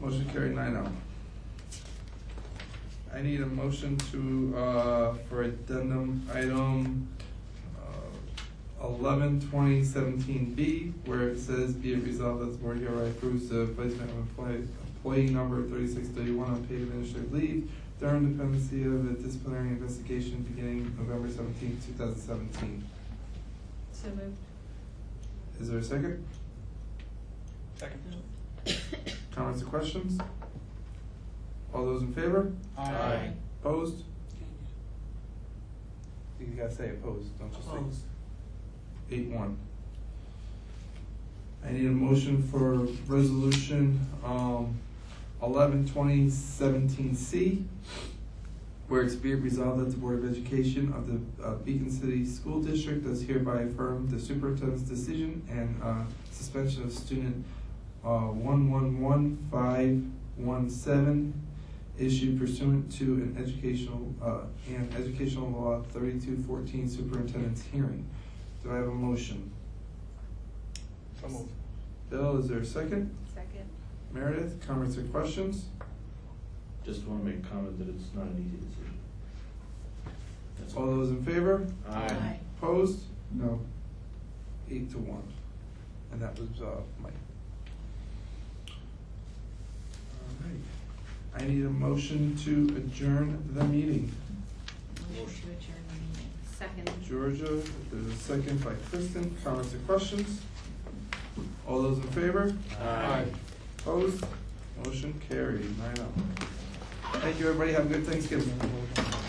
Motion carried nine oh. I need a motion to, uh, for addendum item uh, eleven twenty seventeen B, where it says, be it resolved that the board hereby approves the placement of employee, employee number thirty-six thirty-one on paid administrative leave during dependency of a disciplinary investigation beginning November seventeenth, two thousand seventeen. So moved. Is there a second? Second. Comments or questions? All those in favor? Aye. Opposed? You gotta say opposed, don't just say. Eight one. I need a motion for resolution, um, eleven twenty seventeen C, where it's be it resolved that the Board of Education of the uh, Beacon City School District does hereby affirm the superintendent's decision and, uh, suspension of student, uh, one one one five one seven issued pursuant to an educational, uh, and educational law thirty-two fourteen superintendent's hearing. Do I have a motion? So moved. Bill, is there a second? Second. Meredith, comments or questions? Just want to make a comment that it's not an easy decision. That's All those in favor? Aye. Opposed? No. Eight to one. And that was, uh, Mike. All right. I need a motion to adjourn the meeting. Motion to adjourn the meeting. Second. Georgia, there's a second by Kristen, comments or questions? All those in favor? Aye. Opposed? Motion carried, nine oh. Thank you, everybody, have a good Thanksgiving.